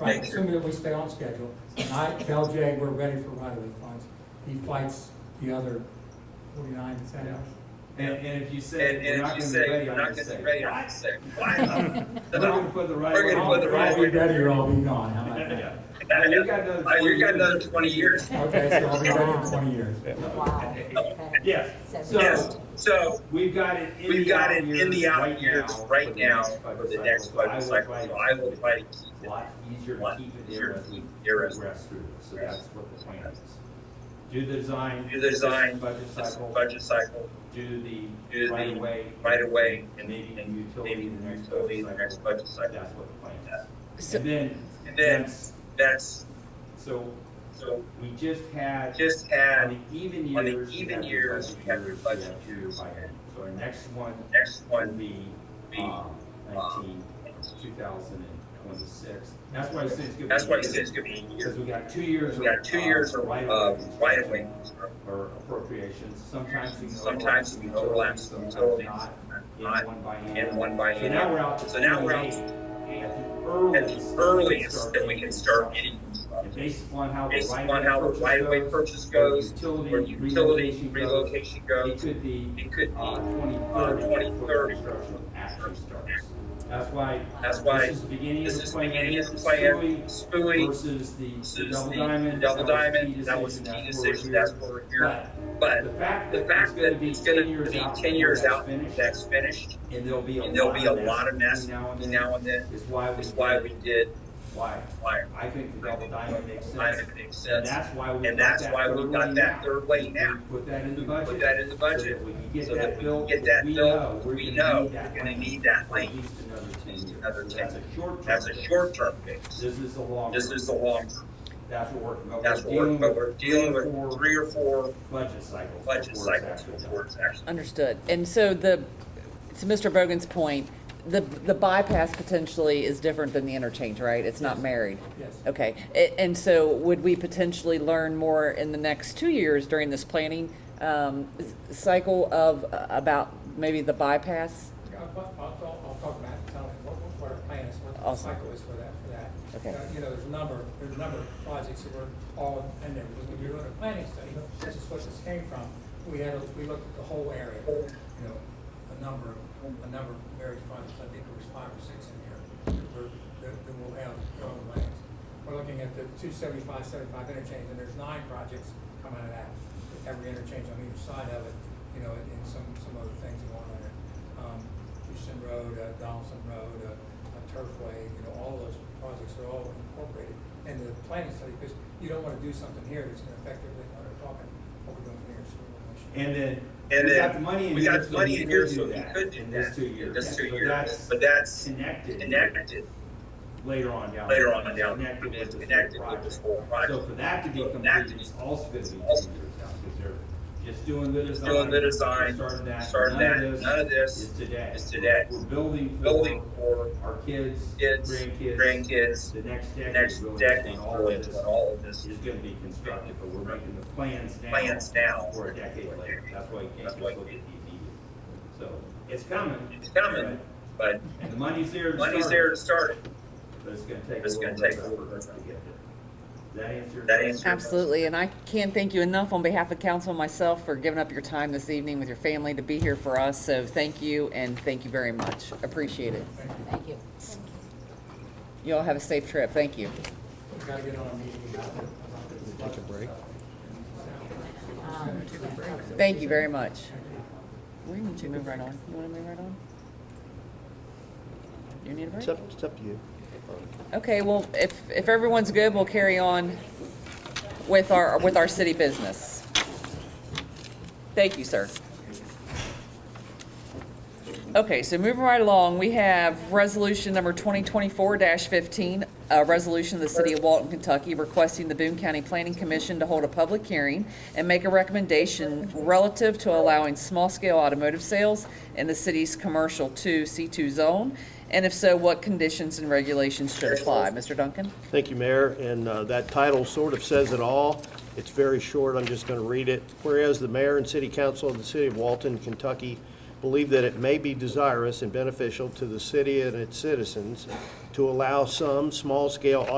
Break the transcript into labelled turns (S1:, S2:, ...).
S1: Right,
S2: Make sure.
S1: assuming that we stay on schedule. And I tell Jay we're ready for right-of-way funds. He fights the other forty-nine senators.
S3: And, and if you say,
S2: And,
S3: we're
S2: and
S3: not
S2: if you
S3: gonna be
S2: say,
S3: ready,
S2: you're
S3: I'm gonna
S2: not gonna be
S3: say,
S2: ready, I'm sick. Why?
S3: we're gonna put the right.
S2: We're gonna put the right-
S1: I'll be ready or I'll be gone, how about that?
S3: Yeah.
S2: Uh,
S3: You got another
S2: You got
S3: 20
S2: another twenty years.
S1: Okay, so I'll be ready in twenty years.
S4: Wow.
S3: Yes,
S2: Yes,
S3: so,
S2: so
S3: we've got it in the.
S2: we've got it
S3: out
S2: in the
S3: years
S2: out years
S3: now
S2: right now for
S3: budget
S2: the
S3: cycle.
S2: next
S3: So I
S2: budget
S3: would
S2: cycle.
S3: like
S2: So I would try
S3: A
S2: to keep
S3: lot easier
S2: it
S3: to
S2: one
S3: keep it there
S2: year,
S3: as we
S2: keep there as
S3: progress through this, so that's what the plan is. Do the design.
S2: Do the design,
S3: Budget
S2: this
S3: cycle,
S2: budget cycle
S3: do
S2: do
S3: the
S2: the
S3: right of way.
S2: right away and
S3: Maybe
S2: and
S3: utility in the next
S2: utility
S3: budget
S2: in the next
S3: cycle.
S2: budget cycle.
S3: That's what the plan is.
S4: So-
S3: And then.
S2: And then-
S3: that's-
S2: That's,
S3: So
S2: so
S3: we just had.
S2: just
S3: On
S2: had
S3: the even
S2: On the
S3: years.
S2: even
S3: you have your
S2: years,
S3: budget
S2: you have your
S3: years,
S2: budget
S3: yeah,
S2: years.
S3: year by year. So our next one
S2: next
S3: will
S2: one.
S3: be,
S2: be,
S3: um, nineteen, two thousand and twenty-six. That's why I said it's gonna be.
S2: That's why he said it's gonna be a
S3: Because
S2: year.
S3: we got two years.
S2: We got two
S3: of,
S2: years
S3: uh,
S2: of,
S3: right-of-way
S2: of right of way.
S3: Or appropriations, sometimes we can.
S2: Sometimes we overlap some utilities,
S3: Sometimes not,
S2: not
S3: in one by hand.
S2: in one by
S3: So now
S2: hand.
S3: we're out to.
S2: So now we're out
S3: 28,
S2: At the earliest that we can start getting,
S3: And based upon how the
S2: based
S3: right.
S2: upon how the right of way purchase goes, or utility relocation
S3: It
S2: goes,
S3: could be
S2: it could
S3: uh,
S2: be,
S3: 2030
S2: 2030
S3: before construction actually starts. That's why.
S2: That's why
S3: This is the beginning of
S2: this
S3: the
S2: is the
S3: plan.
S2: beginning of the
S3: This
S2: plan,
S3: is Stewie
S2: spooey,
S3: Versus the the
S2: versus
S3: double
S2: the
S3: diamond.
S2: double
S3: That
S2: diamond, that was the key decision, that's
S3: where
S2: what we're
S3: we're
S2: hearing.
S3: at. But
S2: But
S3: the fact
S2: the
S3: that it's
S2: fact
S3: gonna
S2: that
S3: be
S2: it's gonna
S3: ten years
S2: be
S3: out.
S2: ten years
S3: before
S2: out,
S3: that's finished,
S2: that's finished,
S3: And there'll be a lot.
S2: and there'll be a
S3: of
S2: lot of mess
S3: between Now and
S2: between
S3: then
S2: now and then,
S3: is why we.
S2: is why we did
S3: Why.
S2: wire.
S3: I think the double diamond makes sense.
S2: Diamond makes
S3: And
S2: sense,
S3: that's why we.
S2: and
S3: got
S2: that's
S3: that
S2: why we
S3: third
S2: got
S3: lane
S2: that
S3: out.
S2: third lane now.
S3: Put that in the
S2: We
S3: budget.
S2: Put that in the budget,
S3: So that when you
S2: so
S3: get
S2: that
S3: that
S2: we can
S3: built,
S2: get that
S3: we know,
S2: built,
S3: we're
S2: we
S3: gonna
S2: know
S3: need
S2: we're
S3: that
S2: gonna
S3: lane
S2: need that
S3: for at
S2: lane.
S3: least another ten years.
S2: Another
S3: So
S2: 10
S3: That's a short term.
S2: That's a
S3: fix.
S2: short-term fix.
S3: This is a long.
S2: This
S3: term.
S2: is the long,
S3: That's what we're, but
S2: that's
S3: we're
S2: what we're,
S3: dealing
S2: but
S3: with.
S2: we're dealing with three or four
S3: Budget cycles. before
S2: budget
S3: it's
S2: cycles
S3: actually done.
S2: before it's actually.
S4: Understood. And so the, to Mr. Bogan's point, the, the bypass potentially is different than the interchange, right? It's not married.
S1: Yes.
S4: Okay. A- And so would we potentially learn more in the next two years during this planning um, s- cycle of, uh, about maybe the bypass?
S1: I'll, I'll, I'll- I'll talk about, it, tell him what, what our plan is, what the
S4: Awesome.
S1: cycle is for that, for that.
S4: Okay.
S1: Uh, You know, there's a number, there's a number of projects that were all in there, because when we were doing a planning study, this is what this came from. We had, a- we looked at the whole area, you know, a number, a number of various projects, I think there was five or six in here, that were, that, that will have their own lanes. We're looking at the two seventy-five, seventy-five interchange, and there's nine projects coming out of that, with every interchange on either side of it, you know, and and some, some other things going on there um, Houston Road, uh, Donaldson Road, uh, uh, Turfway, you know, all of those projects are all incorporated into the planning study, because you don't wanna do something here that's gonna affect everything we're talking, what we're doing here. so we're gonna make sure.
S3: And then.
S2: And
S3: we
S2: then
S3: got the money in
S2: We
S3: here,
S2: got
S3: so
S2: money
S3: we
S2: in here,
S3: could
S2: so
S3: do
S2: we
S3: that
S2: could do
S3: in
S2: that.
S3: this two years.
S2: This
S3: Yeah,
S2: two
S3: but
S2: years,
S3: that's
S2: but that's
S3: Connected.
S2: connected
S3: Later on down.
S2: later on and down,
S3: Connected with
S2: it's
S3: the
S2: connected
S3: whole
S2: with this
S3: project.
S2: whole
S3: So
S2: project.
S3: for that to be
S2: So for that
S3: completed,
S2: to be-
S3: it's also gonna be two years
S2: also-
S3: out, because they're just doing the design.
S2: Doing the design,
S3: Starting that.
S2: starting
S3: None of
S2: that,
S3: this
S2: none of
S3: Is
S2: this,
S3: today.
S2: is today.
S3: We're building
S2: building
S3: for
S2: for
S3: our kids,
S2: kids,
S3: grandkids.
S2: grandkids,
S3: The next
S2: the
S3: decade.
S2: next
S3: really,
S2: decade,
S3: when all
S2: really,
S3: of
S2: is
S3: this
S2: when all of this
S3: is gonna be constructed, but we're making the plans now.
S2: plans now.
S3: For a decade later, that's why you can't
S2: That's
S3: just
S2: why-
S3: look at the immediate. So, it's coming.
S2: It's coming, but
S3: And the money's there to start.
S2: money's there
S3: it,
S2: to start it.
S3: But it's gonna take a
S2: It's
S3: little
S2: gonna
S3: bit.
S2: take a
S3: of
S2: little
S3: effort
S2: bit.
S3: to get there. Does that answer? your
S2: That
S3: question?
S2: answers-
S4: Absolutely, and I can't thank you enough on behalf of council and myself for giving up your time this evening with your family to be here for us, so thank you, and thank you very much. Appreciate it.
S5: Thank you.
S4: You all have a safe trip, thank you.
S1: We gotta get on a meeting about it. Take a break.
S4: Thank you very much. We need to move right on. You wanna move right on? You need a break?
S6: It's up, it's up to you.
S4: Okay, well, if, if everyone's good, we'll carry on with our, with our city business. Thank you, sir. Okay, so moving right along, we have resolution number 2024-15, a resolution of the City of Walton, Kentucky, requesting the Boone County Planning Commission to hold a public hearing and make a recommendation relative to allowing small-scale automotive sales in the city's commercial 2 C2 zone, and if so, what conditions and regulations should apply. Mr. Duncan?
S6: Thank you, Mayor, and uh, that title sort of says it all. It's very short, I'm just going to read it. Whereas the mayor and city council of the city of Walton, Kentucky believe that it may be desirous and beneficial to the city and its citizens to allow some small-scale